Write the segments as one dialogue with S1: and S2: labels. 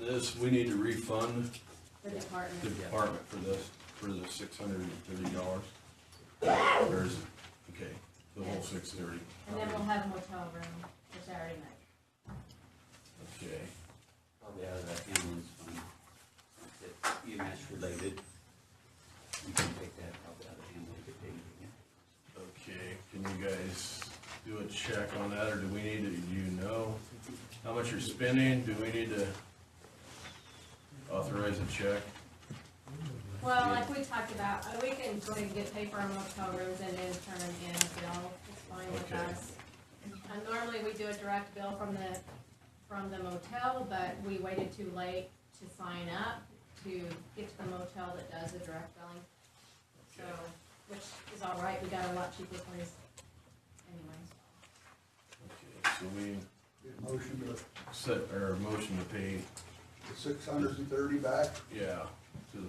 S1: this, we need to refund
S2: the
S1: the
S2: department.
S1: department for this, for the six hundred and thirty dollars. Or is it, okay, the whole six thirty,
S2: And then we'll have motel room for Saturday night.
S1: okay.
S3: Probably out of that ambulance fund, that EMS related. You can take that probably out of ambulance if they need it.
S1: Okay, can you guys do a check on that, or do we need to, do you know how much you're spending? Do we need to authorize a check?
S2: Well, like we talked about, uh, we can go ahead and get paper on motel rooms and then turn them in, if y'all, it's fine with
S1: Okay.
S2: us. And normally we do a direct bill from the, from the motel, but we waited too late to sign up to get to the motel that does the direct billing. So, which is all right, we got a lot cheaper place anyways.
S1: Okay, So we
S4: Get a Motion to
S1: set our motion to pay,
S4: six hundred and thirty back.
S1: yeah, to the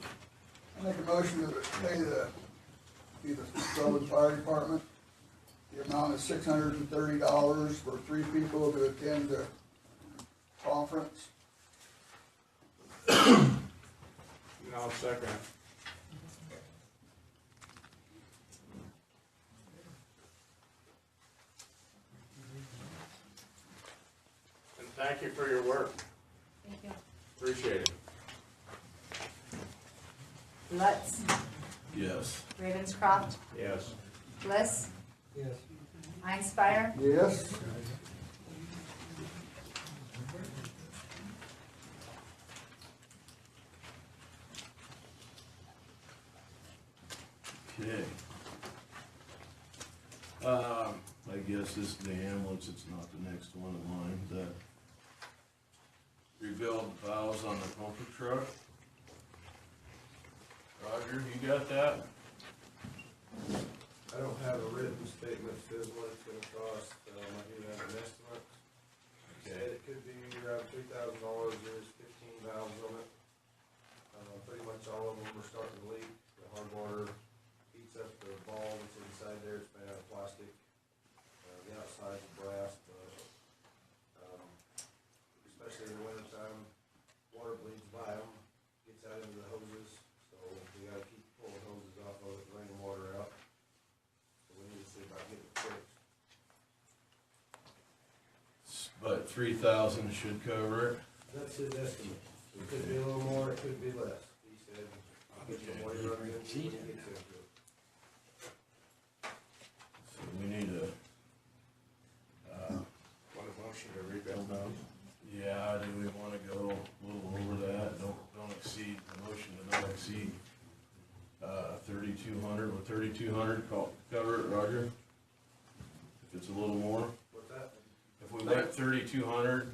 S4: I make a motion to pay the, either Sullivan Fire Department, the amount of six hundred and thirty dollars for three people to attend the conference.
S5: And I'll second it. And thank you for your work,
S2: Thank you.
S5: appreciate it.
S6: Lutz,
S1: Yes.
S6: Ravenscroft,
S5: Yes.
S6: Bliss. Yes. Einspire,
S4: Yes?
S1: Okay. Um, I guess this is the ambulance, it's not the next one of mine, that rebuild valves on the pumper truck. Roger, you got that?
S7: I don't have a written statement, says what it's gonna cost, um, I do have an estimate. Said it could be around three thousand dollars, there's fifteen valves on it. Uh, pretty much all of them are starting to leak, the hard water heats up the ball that's inside there, it's made out of plastic. Uh, the outside's brass, but, um, especially in the winter time, water bleeds by them, gets out into the hoses, so we gotta keep pulling hoses off of it, drain the water out. So we need to see about getting it fixed.
S1: S- But three thousand should cover it.
S7: That's his estimate. It could be a little more, it could be less. He said, I'll get some more, you're gonna get to it.
S1: So we need to,
S5: What a motion to rebuild now.
S1: yeah, do we wanna go a little over that? Don't, don't exceed, the motion to not exceed, uh, thirty-two hundred, would thirty-two hundred co- cover it, Roger? If it's a little more?
S7: What's that?
S1: If we went thirty-two hundred,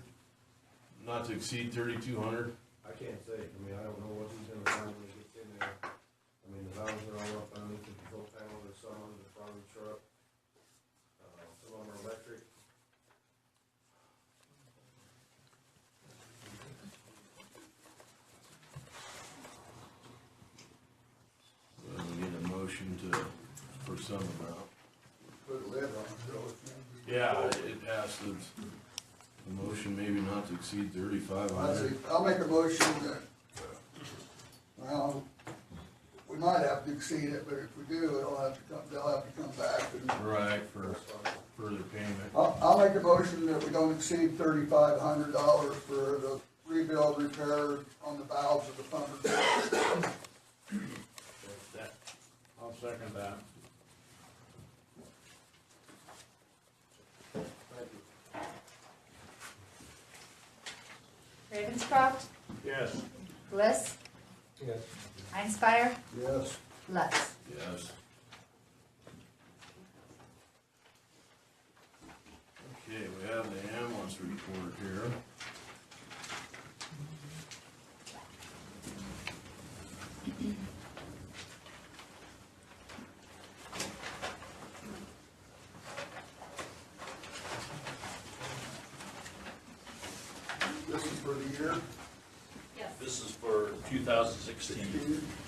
S1: not to exceed thirty-two hundred,
S7: I can't say. I mean, I don't know what he's gonna find when he gets in there. I mean, the valves are all up underneath the control panel, there's some on the front of the truck. Uh, some of them are electric.
S1: uh, we need a motion to, for some amount.
S4: Put a lid on it, so it's-
S1: Yeah, it passed, it's, the motion maybe not to exceed thirty-five
S4: I see,
S1: hundred.
S4: I'll make a motion that, uh, well, we might have to exceed it, but if we do, it'll have to come, they'll have to come back and
S1: Right, for further payment.
S4: I'll, I'll make a motion that we don't exceed thirty-five hundred dollars for the rebuild repair on the valves of the pumper.
S5: I'll second that.
S7: Thank you.
S6: Ravenscroft,
S5: Yes.
S6: Bliss. Yes. Einspire,
S4: Yes.
S6: Lutz.
S1: Yes. Okay, we have the ambulance report here.
S4: This is for the year,
S2: Yes.
S8: This is for 2016.
S4: Steve?